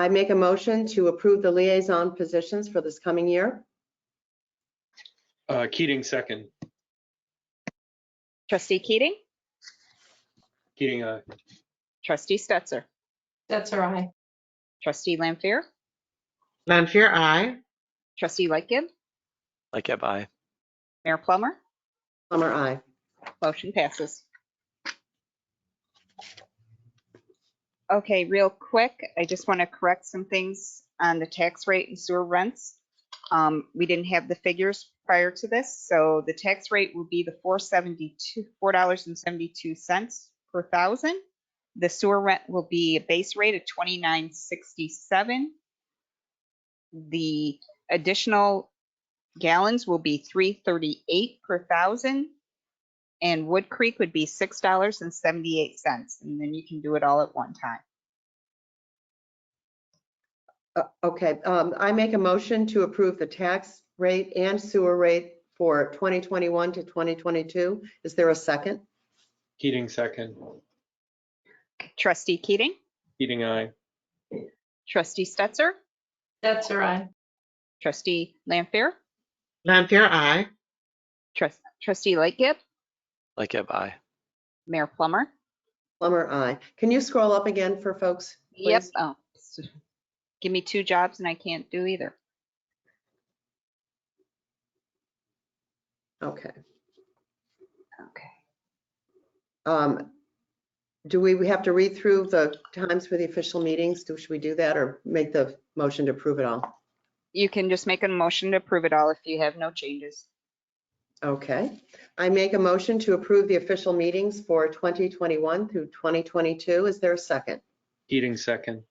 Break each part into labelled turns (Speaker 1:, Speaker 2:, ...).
Speaker 1: I make a motion to approve the liaison positions for this coming year.
Speaker 2: Uh, Keating, second.
Speaker 3: Trustee Keating?
Speaker 2: Keating, aye.
Speaker 3: Trustee Stetser?
Speaker 4: That's all right.
Speaker 3: Trustee Lampier?
Speaker 5: Lanfear, I.
Speaker 3: Trustee Lightgib?
Speaker 6: Like Eb, I.
Speaker 3: Mayor Plummer?
Speaker 1: Plummer, I.
Speaker 3: Motion passes. Okay, real quick, I just want to correct some things on the tax rate and sewer rents. Um, We didn't have the figures prior to this, so the tax rate will be the 472, $4.72 per thousand. The sewer rent will be a base rate of 2967. The additional gallons will be 338 per thousand. And Wood Creek would be six dollars and seventy-eight cents, and then you can do it all at one time.
Speaker 1: Uh, Okay, um, I make a motion to approve the tax rate and sewer rate for 2021 to 2022. Is there a second?
Speaker 2: Keating, second.
Speaker 3: Trustee Keating,
Speaker 2: Keating, aye.
Speaker 3: trustee Stetser,
Speaker 4: That's all right.
Speaker 3: trustee Lampier,
Speaker 5: Lanfear, I.
Speaker 3: trust, trustee Lightgib,
Speaker 6: Like Eb, I.
Speaker 3: Mayor Plummer.
Speaker 1: Plummer, I. Can you scroll up again for folks?
Speaker 3: Yep.
Speaker 1: please?
Speaker 3: Oh, s- Give me two jobs and I can't do either.
Speaker 1: Okay.
Speaker 3: Okay.
Speaker 1: Um, Do we, we have to read through the times for the official meetings? Do, should we do that or make the motion to approve it all?
Speaker 3: You can just make a motion to approve it all if you have no changes.
Speaker 1: Okay. I make a motion to approve the official meetings for 2021 through 2022. Is there a second?
Speaker 2: Keating, second.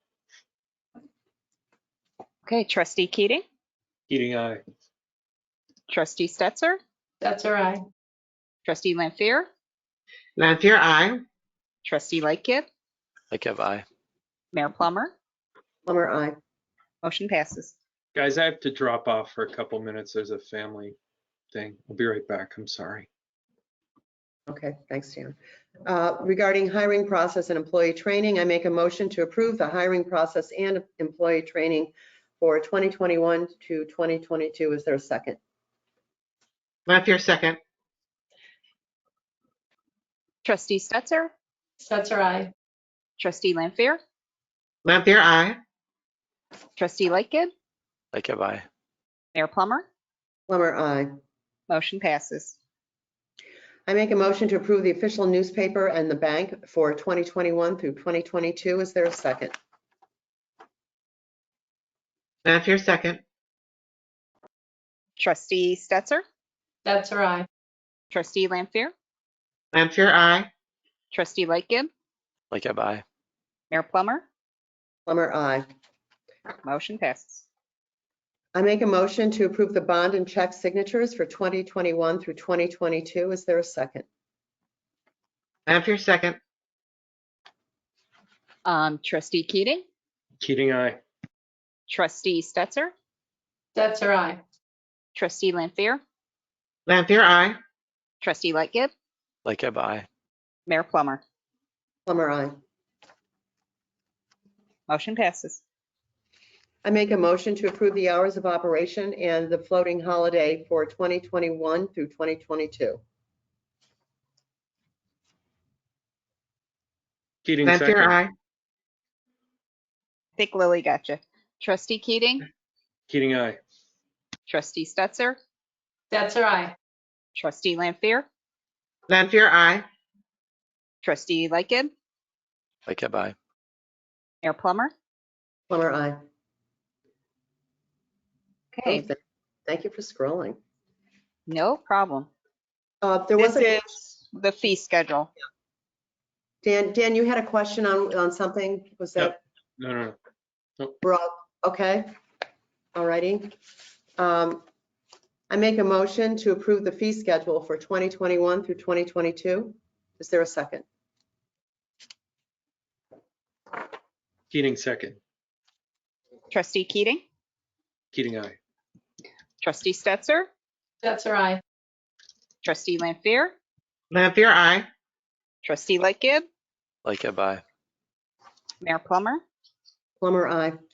Speaker 3: Okay, trustee Keating,
Speaker 2: Keating, aye.
Speaker 3: trustee Stetser,
Speaker 4: That's all right.
Speaker 3: trustee Lampier,
Speaker 5: Lanfear, I.
Speaker 3: trustee Lightgib,
Speaker 6: Like Eb, I.
Speaker 3: Mayor Plummer.
Speaker 1: Plummer, I.
Speaker 3: Motion passes.
Speaker 2: Guys, I have to drop off for a couple minutes. There's a family thing. I'll be right back. I'm sorry.
Speaker 1: Okay, thanks, Dan. Uh, Regarding hiring process and employee training, I make a motion to approve the hiring process and employee training for 2021 to 2022. Is there a second?
Speaker 5: Lanfear, second.
Speaker 3: Trustee Stetser,
Speaker 4: That's all right.
Speaker 3: trustee Lampier,
Speaker 5: Lanfear, I.
Speaker 3: Trustee Lightgib,
Speaker 6: Like Eb, I.
Speaker 3: Mayor Plummer,
Speaker 1: Plummer, I.
Speaker 3: motion passes.
Speaker 1: I make a motion to approve the official newspaper and the bank for 2021 through 2022. Is there a second?
Speaker 5: Lanfear, second.
Speaker 3: Trustee Stetser,
Speaker 4: That's all right.
Speaker 3: trustee Lampier,
Speaker 5: Lanfear, I.
Speaker 3: trustee Lightgib,
Speaker 6: Like Eb, I.
Speaker 3: Mayor Plummer,
Speaker 1: Plummer, I.
Speaker 3: motion passes.
Speaker 1: I make a motion to approve the bond and check signatures for 2021 through 2022. Is there a second?
Speaker 5: Lanfear, second.
Speaker 3: Um, trustee Keating,
Speaker 2: Keating, aye.
Speaker 3: trustee Stetser,
Speaker 4: That's all right.
Speaker 3: trustee Lampier,
Speaker 5: Lanfear, I.
Speaker 3: trustee Lightgib,
Speaker 6: Like Eb, I.
Speaker 3: Mayor Plummer,
Speaker 1: Plummer, I.
Speaker 3: motion passes.
Speaker 1: I make a motion to approve the hours of operation and the floating holiday for 2021 through 2022.
Speaker 2: Keating,
Speaker 5: Lanfear,
Speaker 2: second.
Speaker 5: I.
Speaker 3: I think Lily got you. Trustee Keating,
Speaker 2: Keating, aye.
Speaker 3: trustee Stetser,
Speaker 4: That's all right.
Speaker 3: trustee Lampier,
Speaker 5: Lanfear, I.
Speaker 3: trustee Lightgib,
Speaker 6: Like Eb, I.
Speaker 3: Mayor Plummer.
Speaker 1: Plummer, I.
Speaker 3: Okay,
Speaker 1: Thank you for scrolling.
Speaker 3: no problem.
Speaker 1: Uh, There was
Speaker 3: This
Speaker 1: a,
Speaker 3: is the fee schedule.
Speaker 1: Dan, Dan, you had a question on, on something? Was that,
Speaker 2: No, no, no.
Speaker 1: we're all, okay? All righty. Um, I make a motion to approve the fee schedule for 2021 through 2022. Is there a second?
Speaker 2: Keating, second.
Speaker 3: Trustee Keating,
Speaker 2: Keating, aye.
Speaker 3: trustee Stetser,
Speaker 4: That's all right.
Speaker 3: trustee Lampier,
Speaker 5: Lanfear, I.
Speaker 3: Trustee Lightgib,
Speaker 6: Like Eb, I.
Speaker 3: Mayor Plummer,
Speaker 1: Plummer, I.